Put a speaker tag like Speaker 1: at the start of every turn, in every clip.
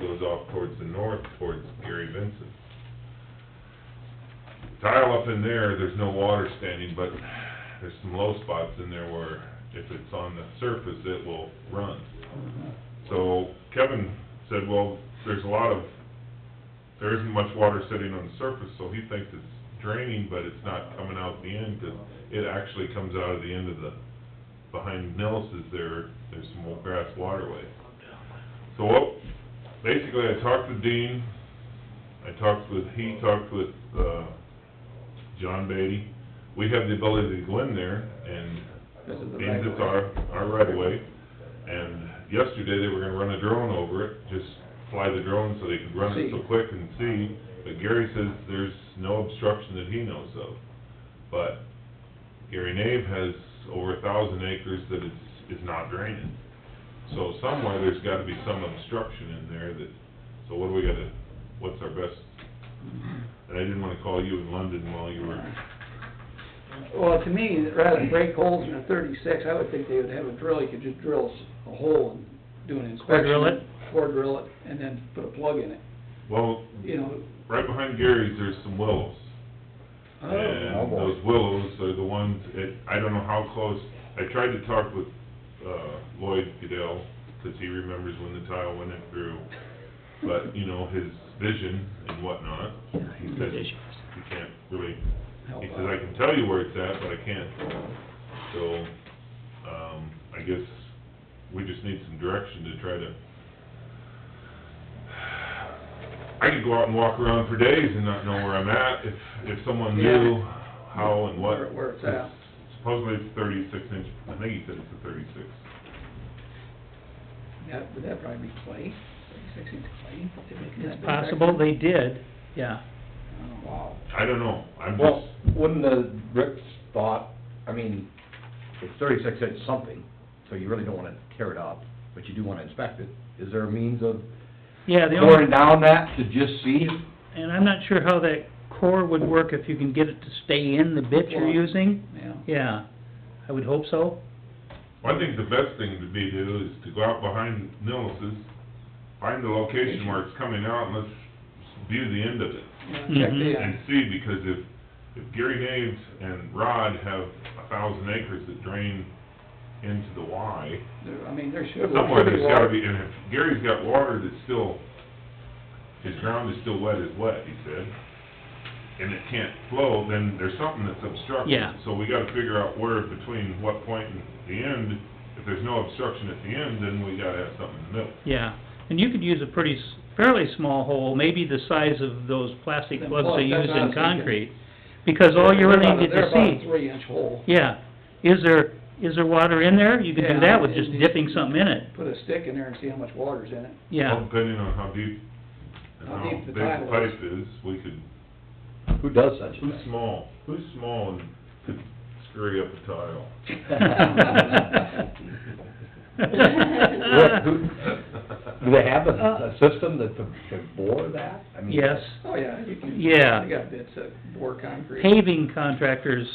Speaker 1: goes off towards the north, towards Gary Vincent. Tile up in there, there's no water standing, but there's some low spots in there where if it's on the surface, it will run. So Kevin said, well, there's a lot of, there isn't much water sitting on the surface, so he thinks it's draining, but it's not coming out the end, 'cause it actually comes out of the end of the, behind Nellis's there, there's some old grass waterway. So what, basically, I talked to Dean, I talked with, he talked with, uh, John Beatty. We have the ability to go in there and
Speaker 2: This is the
Speaker 1: means
Speaker 2: right
Speaker 1: it's our, our right of way. And yesterday, they were gonna run a drone over it, just fly the drone so they could run it so
Speaker 2: See.
Speaker 1: quick and see. But Gary says there's no obstruction that he knows of. But Gary Nave has over a thousand acres that is, is not draining. So somewhere, there's gotta be some obstruction in there that, so what do we gotta, what's our best? And I didn't wanna call you in London while you were,
Speaker 2: Well, to me, rather than break holes in a thirty-six, I would think they would have a drill, you could just drill s- a hole and do an inspection.
Speaker 3: Core drill it?
Speaker 2: Core drill it, and then put a plug in it,
Speaker 1: well,
Speaker 2: you know.
Speaker 1: right behind Gary's, there's some willows.
Speaker 2: Oh,
Speaker 1: And those willows are the ones, it, I don't know how close, I tried to talk with, uh, Lloyd Goodell, 'cause he remembers when the tile went in through, but, you know, his vision and whatnot, he said, you can't really,
Speaker 2: help
Speaker 1: he says, I
Speaker 2: out.
Speaker 1: can tell you where it's at, but I can't. So, um, I guess we just need some direction to try to... I could go out and walk around for days and not know where I'm at if, if someone knew how and what.
Speaker 2: Where it- where it's at.
Speaker 1: Supposedly it's thirty-six inch, I think he said it's a thirty-six.
Speaker 2: That, would that probably be clay, thirty-six inch clay? Did they do that
Speaker 3: It's
Speaker 2: back
Speaker 3: possible
Speaker 2: then?
Speaker 3: they did, yeah.
Speaker 2: Oh, Wow.
Speaker 1: I don't know, I'm
Speaker 4: Well,
Speaker 1: just,
Speaker 4: wouldn't the Rick's thought, I mean, it's thirty-six inch something, so you really don't wanna tear it up, but you do wanna inspect it. Is there a means of
Speaker 3: Yeah, the only,
Speaker 4: pouring down that to just see?
Speaker 3: and I'm not sure how that core would work if you can get it to stay in the bit you're
Speaker 2: Well-
Speaker 3: using.
Speaker 2: Yeah.
Speaker 3: Yeah, I would hope so.
Speaker 1: I think the best thing to be do is to go out behind Nelson's, find the location where it's coming out and let's view the end of it.
Speaker 2: Yeah, check
Speaker 3: Mhm.
Speaker 2: the,
Speaker 1: and see, because if, if Gary Naves and Rod have a thousand acres that drain into the Y,
Speaker 2: there- I mean, there should. there
Speaker 1: somewhere
Speaker 2: should
Speaker 1: there's
Speaker 2: water.
Speaker 1: gotta be, and if Gary's got water that's still, his ground is still wet as wet, he said, and it can't flow, then there's something that's obstructing.
Speaker 3: Yeah.
Speaker 1: So we gotta figure out where between what point and the end, if there's no obstruction at the end, then we gotta have something in the middle.
Speaker 3: Yeah, and you could use a pretty, s- fairly small hole, maybe the size of those plastic
Speaker 2: Them
Speaker 3: plugs they
Speaker 2: plugs, that's
Speaker 3: use
Speaker 2: what I
Speaker 3: in
Speaker 2: was thinking.
Speaker 3: concrete, because all you really need
Speaker 2: They're
Speaker 3: to
Speaker 2: about- They're about a
Speaker 3: see,
Speaker 2: three inch hole.
Speaker 3: yeah, is there, is there water in there? You could
Speaker 2: Yeah,
Speaker 3: do that with
Speaker 2: it
Speaker 3: just
Speaker 2: needs-
Speaker 3: dipping something in it,
Speaker 2: Put a stick in there and see how much water's in it.
Speaker 3: yeah.
Speaker 1: Well, Depending on how deep and
Speaker 2: How
Speaker 1: how
Speaker 2: deep the
Speaker 1: big the
Speaker 2: tile is.
Speaker 1: pipe is, we could
Speaker 4: Who does such a
Speaker 1: Who's
Speaker 4: thing?
Speaker 1: small, who's small and could scurry up a tile?
Speaker 4: What, who- Do they have a, a system that to, to bore that? I mean,
Speaker 3: Yes,
Speaker 2: Oh, yeah, you can.
Speaker 3: Yeah.
Speaker 2: You got bits of bore concrete.
Speaker 3: paving contractors,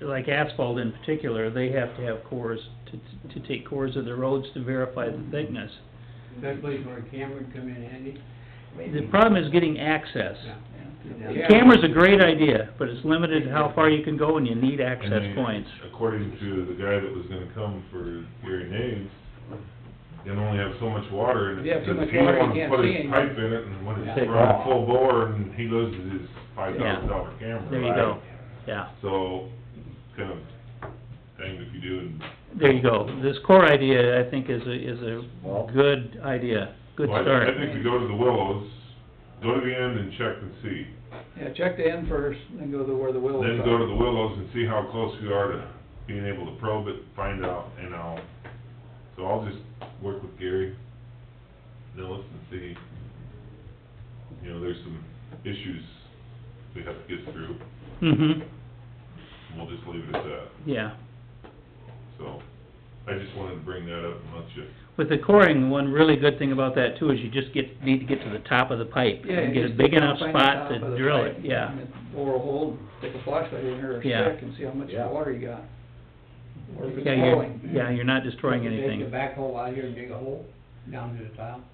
Speaker 3: like asphalt in particular, they have to have cores, to, to take cores of the roads to verify the thickness.
Speaker 5: That place where a camera would come in handy?
Speaker 3: The problem is getting access.
Speaker 2: Yeah.
Speaker 5: Yeah.
Speaker 3: Camera's a great idea, but it's limited how far you can go and you need
Speaker 1: And
Speaker 3: access
Speaker 1: they-
Speaker 3: points.
Speaker 1: According to the guy that was gonna come for Gary Naves, they only have so much water in it.
Speaker 2: If you have too
Speaker 1: because
Speaker 2: much water, you
Speaker 1: He
Speaker 2: can't
Speaker 1: wants to put
Speaker 2: see
Speaker 1: his
Speaker 2: anything.
Speaker 1: pipe in it and when
Speaker 4: Take
Speaker 1: it's running
Speaker 4: off.
Speaker 1: full bore and he loses his five thousand dollar camera.
Speaker 3: There you
Speaker 1: right?
Speaker 3: go, yeah,
Speaker 1: So, it's kind of thing if you do and.
Speaker 3: there you go. This core idea, I think, is a, is
Speaker 4: Well-
Speaker 3: a good idea, good
Speaker 1: Well, I-
Speaker 3: start.
Speaker 1: I think we go to the Willows, go to the end and check and see.
Speaker 2: Yeah, check the end first, then go to where the willows are.
Speaker 1: Then go to the Willows and see how close we are to being able to probe it, find out, and I'll, so I'll just work with Gary, Nellis, and see, you know, there's some issues we have to get through,
Speaker 3: Mm-hmm,
Speaker 1: and we'll just leave it at that,
Speaker 3: yeah.
Speaker 1: so. I just wanted to bring that up and let you,
Speaker 3: With the coring, one really good thing about that too is you just get, need to get to the top of the pipe.
Speaker 2: Yeah,
Speaker 3: and
Speaker 2: you
Speaker 3: Get a
Speaker 2: just
Speaker 3: big
Speaker 2: go
Speaker 3: enough
Speaker 2: find the
Speaker 3: spot
Speaker 2: top of
Speaker 3: to
Speaker 2: the
Speaker 3: drill it,
Speaker 2: pipe,
Speaker 3: yeah.
Speaker 2: and then Bore a hole, stick a flashlight in there or a
Speaker 3: Yeah.
Speaker 2: stick and see how much
Speaker 4: Yeah.
Speaker 2: water you got. Or if it's
Speaker 3: Yeah, you're,
Speaker 2: flowing.
Speaker 3: yeah, you're not destroying
Speaker 5: Take
Speaker 3: anything.
Speaker 5: the backhoe out here and dig a hole down to the tile?